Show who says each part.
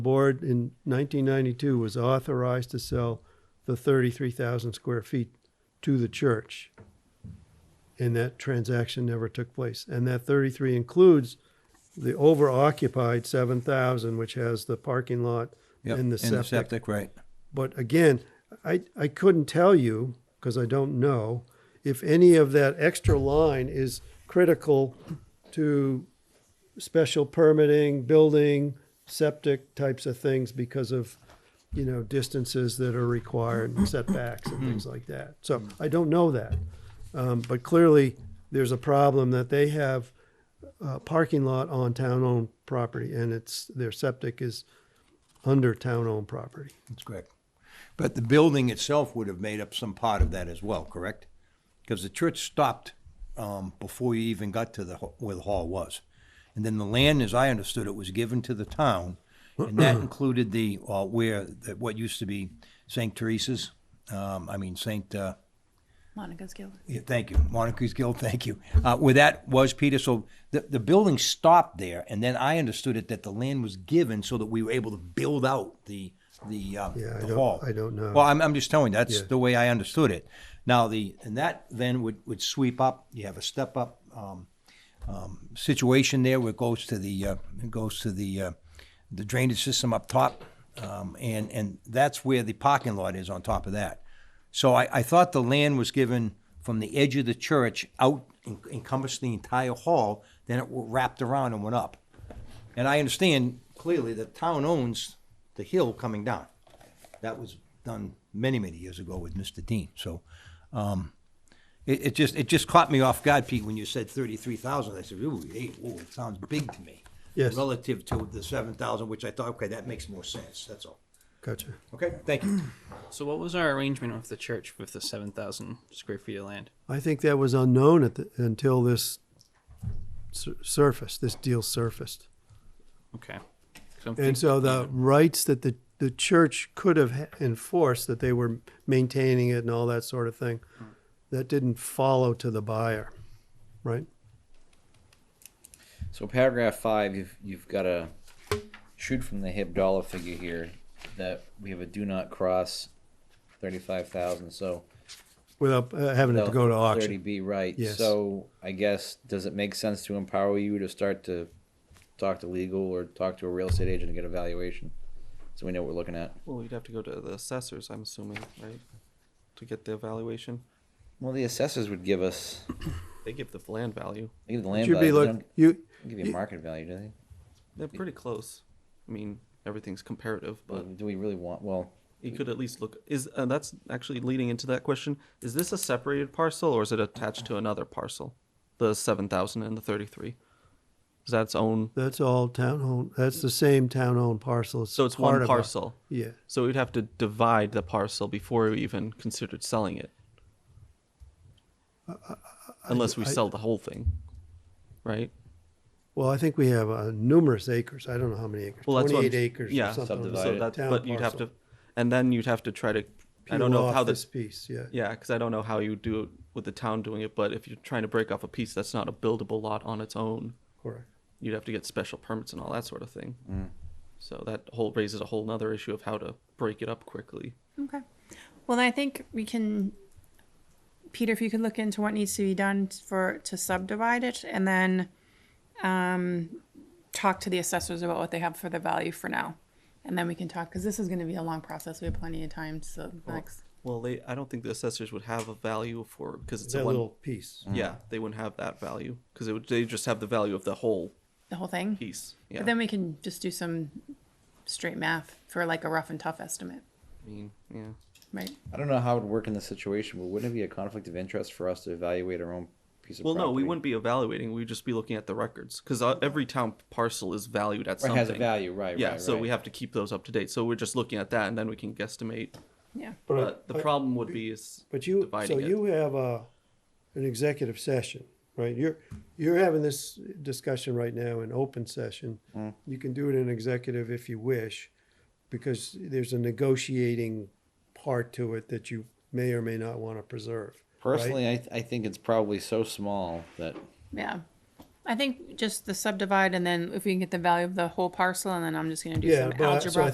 Speaker 1: board in 1992 was authorized to sell the 33,000 square feet to the church. And that transaction never took place. And that 33 includes the over-occupied 7,000, which has the parking lot
Speaker 2: Yep,
Speaker 1: and the septic.
Speaker 2: right.
Speaker 1: But again, I, I couldn't tell you, because I don't know, if any of that extra line is critical to special permitting, building, septic types of things because of, you know, distances that are required, and setbacks and things like that. So I don't know that. Um, but clearly, there's a problem that they have a parking lot on town-owned property, and it's, their septic is under town-owned property.
Speaker 2: That's correct. But the building itself would have made up some part of that as well, correct? Because the church stopped um, before you even got to the ho- where the hall was, and then the land, as I understood it, was given to the town, and that included the uh, where the, what used to be Saint Teresa's. Um, I mean Saint. Uh,
Speaker 3: Monica's Guild.
Speaker 2: Yeah, thank you. Moncrief Guild, thank you. Uh, where that was, Peter, so the, the building stopped there, and then I understood it that the land was given so that we were able to build out the, the, uh,
Speaker 1: Yeah, I
Speaker 2: the
Speaker 1: don't-
Speaker 2: hall.
Speaker 1: I don't know.
Speaker 2: Well, I'm, I'm just telling you, that's
Speaker 1: Yeah.
Speaker 2: the way I understood it. Now, the, and that then would, would sweep up, you have a step up, um, um, situation there where it goes to the, uh, it goes to the, uh, the drainage system up top. Um, and, and that's where the parking lot is on top of that. So I, I thought the land was given from the edge of the church out, en- encompassed the entire hall, then it wrapped around and went up. And I understand clearly the town owns the hill coming down. That was done many, many years ago with Mr. Dean, so, um, it, it just, it just caught me off guard, Pete, when you said thirty-three thousand, I said, ooh, hey, ooh, it sounds big to me.
Speaker 1: Yes.
Speaker 2: Relative to the seven thousand, which I thought, okay, that makes more sense, that's all.
Speaker 1: Gotcha.
Speaker 2: Okay, thank you.
Speaker 4: So what was our arrangement with the church with the seven thousand square feet of land?
Speaker 1: I think that was unknown at the, until this sur- surfaced, this deal surfaced.
Speaker 4: Okay. 'Cause I'm
Speaker 1: And
Speaker 4: think-
Speaker 1: so the rights that the, the church could have ha- enforced, that they were maintaining it and all that sort of thing,
Speaker 5: Hmm.
Speaker 1: that didn't follow to the buyer, right?
Speaker 6: So paragraph five, you've you've got a shoot from the hip dollar figure here that we have a do not cross thirty five thousand. So
Speaker 1: Without uh, having it to go to
Speaker 6: Thirty
Speaker 1: auction.
Speaker 6: B, right?
Speaker 1: Yes.
Speaker 6: So I guess does it make sense to empower you to start to talk to legal or talk to a real estate agent to get a valuation, so we know what we're looking at?
Speaker 5: Well, you'd have to go to the assessors, I'm assuming, right? To get the evaluation.
Speaker 6: Well, the assessors would give us
Speaker 5: They give the land value.
Speaker 6: they give the
Speaker 1: It
Speaker 6: land
Speaker 1: Should
Speaker 6: value.
Speaker 1: be look,
Speaker 6: They don't
Speaker 1: you,
Speaker 6: give you a market value, do they?
Speaker 5: They're pretty close. I mean, everything's comparative,
Speaker 6: Well,
Speaker 1: Mm.
Speaker 5: but
Speaker 6: do we really want? Well,
Speaker 5: you could at least look. Is uh, that's actually leading into that question? Is this a separated parcel or is it attached to another parcel? The seven thousand and the thirty-three. Is that its own?
Speaker 1: that's all town owned, that's the same town owned parcel.
Speaker 5: So it's
Speaker 1: part
Speaker 5: one
Speaker 1: of a-
Speaker 5: parcel.
Speaker 1: Yeah,
Speaker 5: So we'd have to divide the parcel before we even considered selling it. Unless we
Speaker 1: I-
Speaker 5: sell the whole thing, right?
Speaker 1: well, I think we have uh, numerous acres, I don't know how many acres,
Speaker 5: Well, that's what I'm-
Speaker 1: twenty-eight acres
Speaker 5: yeah,
Speaker 1: or something.
Speaker 6: Subdivided.
Speaker 5: So that,
Speaker 1: Town
Speaker 5: but you'd have
Speaker 1: parcel.
Speaker 5: to, and then you'd have to try to. I don't
Speaker 1: Peel
Speaker 5: know
Speaker 1: off
Speaker 5: how
Speaker 1: This
Speaker 5: this.
Speaker 1: piece, yeah.
Speaker 5: Yeah, because I don't know how you do it with the town doing it. But if you're trying to break off a piece that's not a buildable lot on its own,
Speaker 1: Correct.
Speaker 5: you'd have to get special permits and all that sort of thing. So that whole raises a whole nother issue of how to break it up quickly.
Speaker 3: Okay. Well, then I think we can, Peter, if you could look into what needs to be done for, to subdivide it and then, um, talk to the assessors about what they have for the value for now. And then we can talk, because this is gonna be a long process. We have plenty of time, so next.
Speaker 5: Well, they I don't think the assessors would have a value for because it's a
Speaker 1: That
Speaker 5: one.
Speaker 1: little piece.
Speaker 5: Yeah, they wouldn't have that value because it would. They just have the value of the whole
Speaker 3: The whole thing?
Speaker 5: piece. Yeah.
Speaker 3: But then we can just do some straight math for like a rough and tough estimate,
Speaker 5: I mean, yeah.
Speaker 3: right?
Speaker 6: I don't know how it would work in this situation, but wouldn't it be a conflict of interest for us to evaluate our own piece of
Speaker 5: Well,
Speaker 6: property?
Speaker 5: no, we wouldn't be evaluating. We'd just be looking at the records because every town parcel is valued at
Speaker 6: Right,
Speaker 5: something.
Speaker 6: has a value, right?
Speaker 5: yeah,
Speaker 6: right,
Speaker 5: so we
Speaker 6: right.
Speaker 5: have to keep those up to date. So we're just looking at that, and then we can guesstimate.
Speaker 3: Yeah.
Speaker 1: But I-
Speaker 5: But uh, the
Speaker 1: I-
Speaker 5: problem would be is
Speaker 1: But you, so
Speaker 5: dividing it.
Speaker 1: you have a, an executive session, right? You're, you're having this discussion right now in open session.
Speaker 5: Mm.
Speaker 1: You can do it in executive if you wish, because there's a negotiating part to it that you may or may not want to preserve. right?
Speaker 6: Personally, I, th- I think it's probably so small that
Speaker 3: Yeah. I think just the subdivide and then if we can get the value of the whole parcel and then I'm just gonna do
Speaker 1: Yeah,
Speaker 3: some
Speaker 1: but I- so I
Speaker 3: algebra.